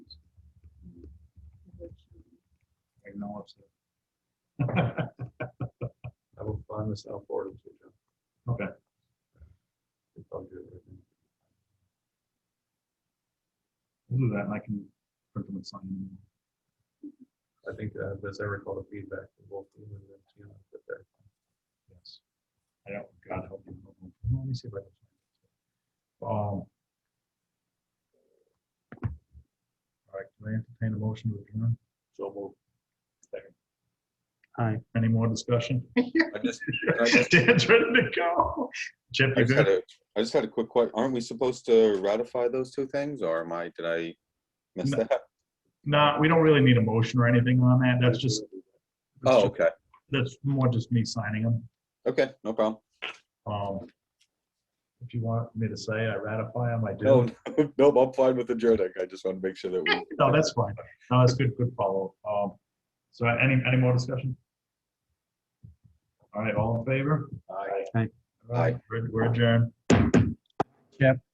all upset. I will find this out for you. Okay. It's all good with me. We'll do that and I can print them and sign them. I think, uh, as I recall, the feedback from both you and then Tina, that they're, Yes. I don't, God help you. Let me see if I can. find it. Um. All right, can I entertain a motion to adjourn? so we'll Hi. Any more discussion? I just, I just, Dan's ready to go. Chip, I you just had good? a, I just had a quick question. Aren't we supposed to ratify those two things or am I, did I miss No. that? No, we don't really need a motion or anything on that. That's just. that's Oh, ju- okay. That's more just me signing them. Okay, no problem. Um. If you want me to say I ratify them, I do. No, no, I'm fine with adjourning. I just want to make sure that we. No, that's fine. No, that's good, good follow. Um, so any, any more discussion? All right, all in favor? Aye. All right, we're we're adjourned.